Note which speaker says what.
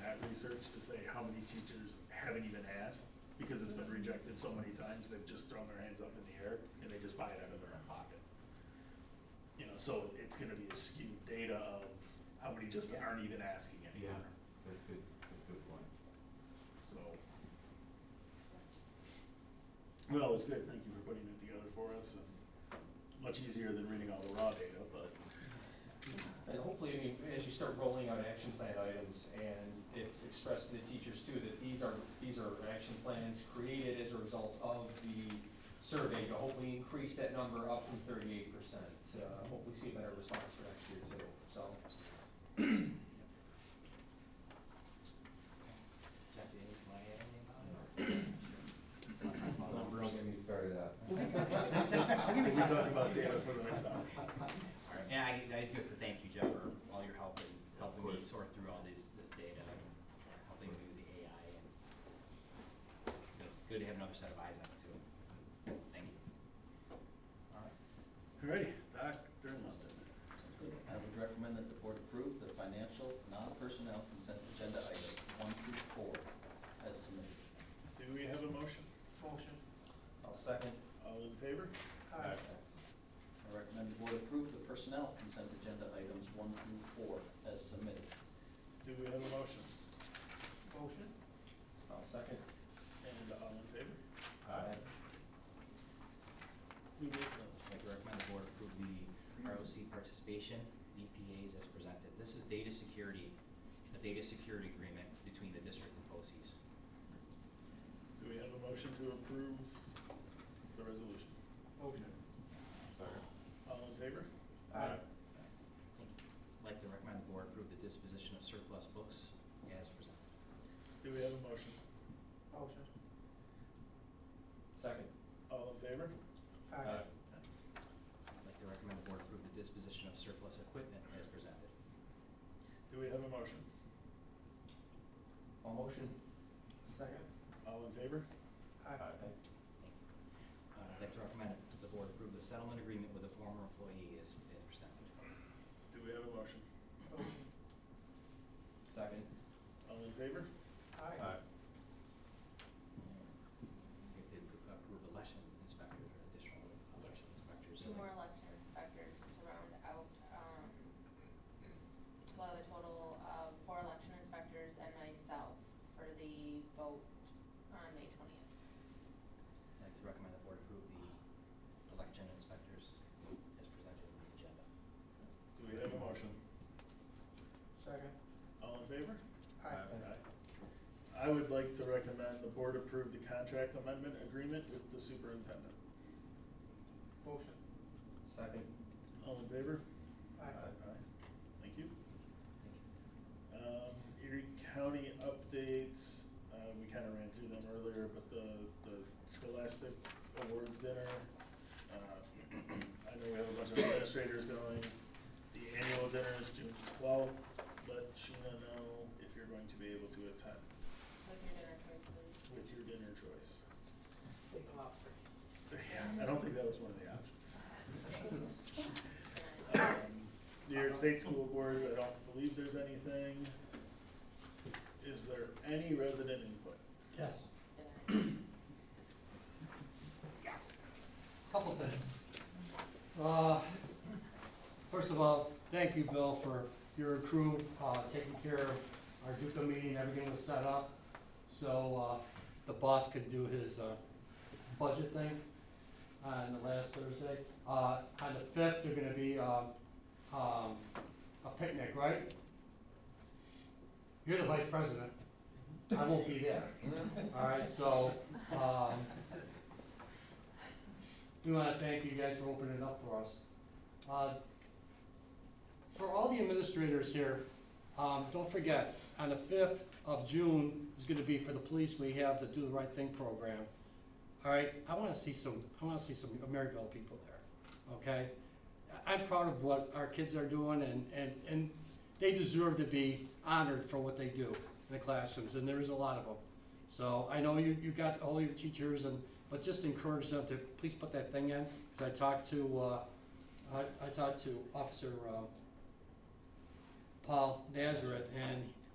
Speaker 1: language to say how many teachers haven't even asked, because it's been rejected so many times, they've just thrown their hands up in the air, and they just buy it out of their own pocket. You know, so it's gonna be a skewed data of how many just aren't even asking anymore,
Speaker 2: That's good, that's a good point.
Speaker 1: so. Well, it's good, thank you for putting it together for us, and much easier than reading all the raw data, but.
Speaker 3: And hopefully, I mean, as you start rolling out action plan items and it's expressed to the teachers too, that these are, these are action plans created as a result of the survey, to hopefully increase that number up from thirty-eight percent. Uh, hopefully see a better response for next year too, so.
Speaker 4: Jeff, you need my add
Speaker 2: Don't get me started out.
Speaker 1: We'll be talking about data for the next hour.
Speaker 4: All right, and I, I do have to thank you, Jeff, for all your help in helping me
Speaker 2: course.
Speaker 4: sort through all these, this data and helping me with the AI and good- good to have another set of eyes on it too. Thank you.
Speaker 3: All right.
Speaker 1: Alrighty, Dr. Musto.
Speaker 5: I would recommend that the board approve the financial, non-personnel consent agenda items one through four as submitted.
Speaker 1: Do we have a motion?
Speaker 3: Motion. I'll second.
Speaker 1: All in favor? Aye.
Speaker 5: I recommend the board approve the personnel consent agenda items one through four as submitted.
Speaker 1: Do we have a motion?
Speaker 3: Motion. I'll second.
Speaker 1: And all in favor?
Speaker 3: Aye.
Speaker 1: Who moves those?
Speaker 4: I'd like to recommend the board approve the ROC participation, DPAs as presented. This is data security, a data security agreement between the district and BOCES.
Speaker 1: Do we have a motion to approve the resolution?
Speaker 3: Motion.
Speaker 1: All in favor?
Speaker 3: Aye.
Speaker 4: I'd like to recommend the board approve the disposition of surplus books as presented.
Speaker 1: Do we have a motion?
Speaker 3: Motion. Second.
Speaker 1: All in favor?
Speaker 3: Aye.
Speaker 4: I'd like to recommend the board approve the disposition of surplus equipment as presented.
Speaker 1: Do we have a motion?
Speaker 3: All Uh, motion.
Speaker 5: Second.
Speaker 1: All in favor?
Speaker 4: Uh, I'd like to recommend the board approve the settlement agreement with a former employee as as presented.
Speaker 1: Do we have a motion?
Speaker 3: Second.
Speaker 1: All in favor?
Speaker 3: Aye.
Speaker 4: We have to appro- approve election inspector, additional election
Speaker 6: Yes.
Speaker 4: inspectors.
Speaker 6: Two more election inspectors to round out, um, we'll have a total of four election inspectors and myself for the vote on May twentieth.
Speaker 4: I'd like to recommend the board approve the election inspectors as presented in the agenda.
Speaker 1: Do we have a motion?
Speaker 3: Second.
Speaker 1: All in favor?
Speaker 3: Aye.
Speaker 1: I would like to recommend the board approve the contract amendment agreement with the superintendent.
Speaker 3: Motion. Second.
Speaker 1: All in favor?
Speaker 3: Aye.
Speaker 1: Thank you. Um, Erie County updates, uh, we kinda ran through them earlier, but the, the Scholastic Awards Dinner. uh, I know we have a bunch of administrators going, the annual dinner is June twelfth, let Sheena know if you're going to be able to attend
Speaker 6: With your dinner choice,
Speaker 1: with your dinner
Speaker 6: please.
Speaker 1: choice. Yeah, I don't think that was one of the options.
Speaker 6: And
Speaker 1: Um, New York State School Boards, I don't believe there's anything. Is there any resident input?
Speaker 3: Yes.
Speaker 6: I-
Speaker 7: Couple things. Uh, First of all, thank you, Bill, for your crew uh, taking care of our Duca meeting, everything was set up, so uh, the boss could do his uh, budget thing on the last Thursday. Uh, On the fifth, there're gonna be um, um, a picnic, right? You're the vice president. I won't be there. All right, so um, we want to thank you guys for opening it up for us. Uh, For all the administrators here, um, don't forget, on the fifth of June is gonna be for the police, we have the Do the Right Thing program. All right, I wanna see some, I wanna see some Maryville people there, okay? I- I'm proud of what our kids are doing and, and, and they deserve to be honored for what they do in the classrooms, and there's a lot of them. So I know you, you got all your teachers and, but just encourage them to please put that thing in, cause I talked to, uh, I, I talked to Officer, uh, Paul Nazareth, and